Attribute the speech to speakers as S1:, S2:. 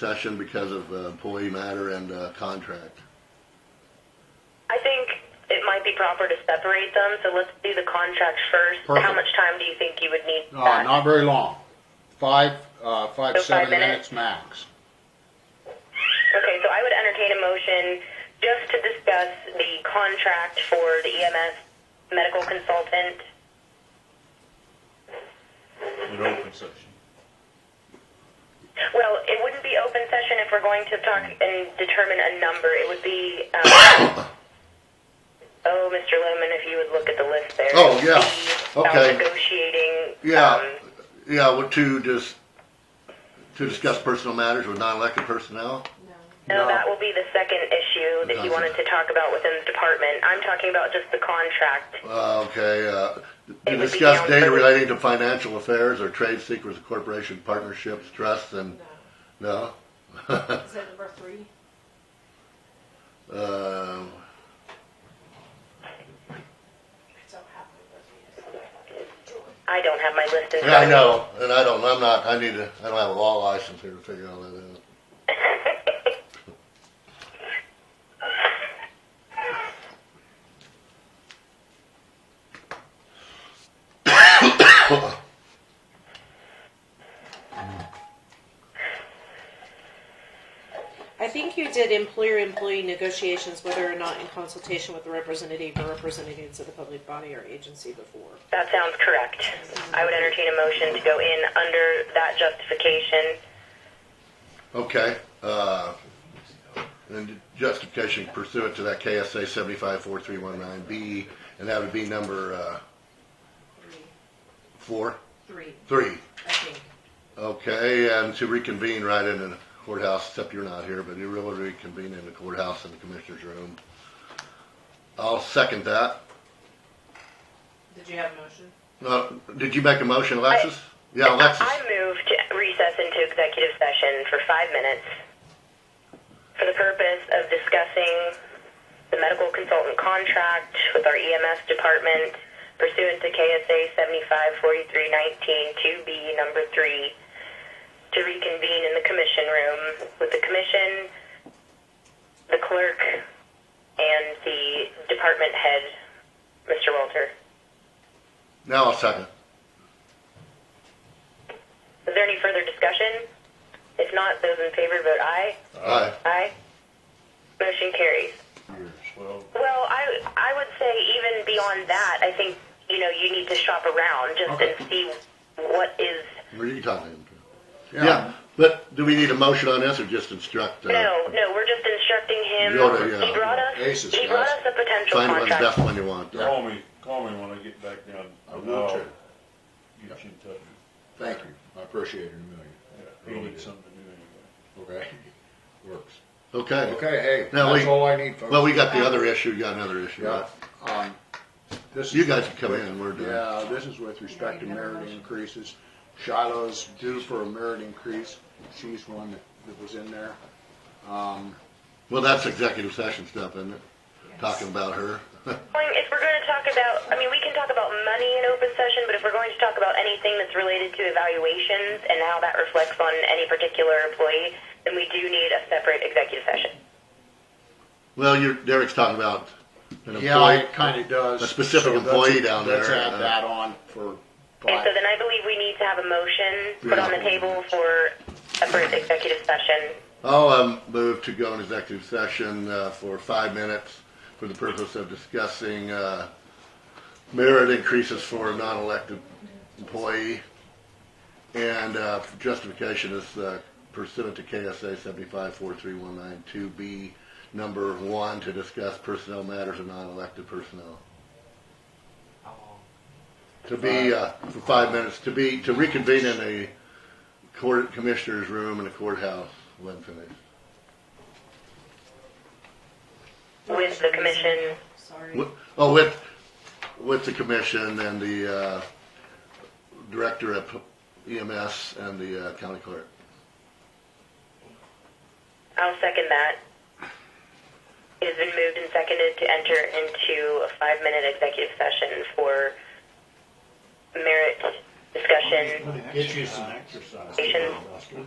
S1: session because of uh, employee matter and uh, contract.
S2: I think it might be proper to separate them, so let's do the contracts first. How
S3: Perfect.
S2: much time do you think you would need?
S1: Oh,
S2: for
S3: Uh,
S2: that?
S3: not very long. Five, uh, five,
S2: So five
S3: seven
S2: minutes?
S3: minutes max.
S2: Okay, so I would entertain a motion just to discuss the contract for the EMS medical consultant.
S4: an open session.
S2: Well, it wouldn't be open session if we're going to talk and determine a number. It would be, um, oh, Mr. Lemon, if you would look at the list there.
S1: Oh, yeah.
S2: It would be about
S1: Okay.
S2: Negotiating.
S1: Yeah,
S2: um,
S1: yeah, well, to just, to discuss personnel matters with non-elected personnel?
S2: No,
S3: No.
S2: that will be the second issue that you wanted to talk about within the department. I'm talking about just the contract.
S1: Uh, okay, uh,
S2: It
S1: to
S2: would be
S1: discuss
S2: down
S1: data
S2: further.
S1: relating to financial affairs or trade secrets, of corporation partnerships, trusts, and, no? Uh,
S5: Is that number three?
S1: Um,
S5: It's all happening.
S2: I don't have my list in
S1: Yeah, I
S2: front of me.
S1: know, and I don't, I'm not, I need to, I don't have a law license here to figure all that out.
S6: I think you did employer-employee negotiations, whether or not in consultation with the representative or representatives of the public body or agency before.
S2: That sounds correct. I would entertain a motion to go in under that justification.
S1: Okay, uh, and justification pursuant to that KSA seventy-five four three one nine B, and that would be number, uh, four,
S5: Three,
S1: three.
S5: I think.
S1: Okay, and to reconvene right in the courthouse, except you're not here, but you really reconvene in the courthouse in the commissioner's room. I'll second that.
S5: Did you have a motion?
S1: Uh, did you make a motion, Alexis? Yeah, Alexis.
S2: I move to recess into executive session for five minutes for the purpose of discussing the medical consultant contract with our EMS department pursuant to KSA 7543192B number three to reconvene in the commission room with the commission, the clerk, and the department head, Mr. Walter.
S1: Now I'll second.
S2: Is there any further discussion? If not, those in favor vote aye.
S1: Aye.
S2: Aye. Motion carries.
S4: Well,
S2: Well, I, I would say even beyond that, I think, you know, you need to shop around just
S3: Okay.
S2: and see what is,
S1: What are you talking about? Yeah, but do we need a motion on this or just instruct? uh,
S2: no, no, we're just instructing him.
S1: You're the, uh,
S2: He brought us,
S3: aces,
S2: he brought
S3: guys.
S2: us a potential
S1: Find one,
S2: contract.
S1: best one you want.
S4: call me, call me when I get back down.
S3: I will
S4: I'll
S3: too.
S4: Get you in touch.
S3: Thank you. I appreciate it a million.
S4: He
S3: Really
S4: needs
S3: do.
S4: something to do anyway.
S3: Okay? Works.
S1: Okay.
S3: Okay, hey,
S1: Now
S3: that's
S1: we-
S3: all I need, folks.
S1: Well, we got the other issue, you got another issue,
S3: Yeah,
S1: right?
S3: um, this is.
S1: You guys can come in, we're done.
S3: Yeah, this is with respect to merit increases. Shiloh's due for a merit increase. She's one that- that was in there. Um,
S1: Well, that's executive session stuff, isn't it? Talking about her.
S2: Going- If we're going to talk about, I mean, we can talk about money in open session, but if we're going to talk about anything that's related to evaluations and how that reflects on any particular employee, then we do need a separate executive session.
S1: Well, you're, Derek's talking about an
S3: yeah,
S1: employee.
S3: it kinda does.
S1: a specific
S3: So let's-
S1: employee down
S3: Let's
S1: there,
S3: add
S1: uh,
S3: that on for.
S2: Okay, so
S3: five.
S2: then I believe we need to have a motion put on the
S1: Yeah.
S2: table for a first executive session.
S1: I'll, um, move to go in executive session, uh, for five minutes for the purpose of discussing, uh, merit increases for a non-elected employee. And, uh, justification is uh, pursuant to KSA seventy-five four three one nine two B, number one, to discuss personnel matters of non-elected personnel. To be, uh, for five minutes, to be, to reconvene in a court, commissioner's room in the courthouse when finished.
S2: With the commission.
S5: Sorry.
S1: Wi- Oh, with, with the commission and the, uh, director of EMS and the uh, county clerk.
S2: I'll second that. It has been moved and seconded to enter into a five-minute executive session for merit discussion,
S4: Get you some exercise.
S2: Patient.
S4: Oscar.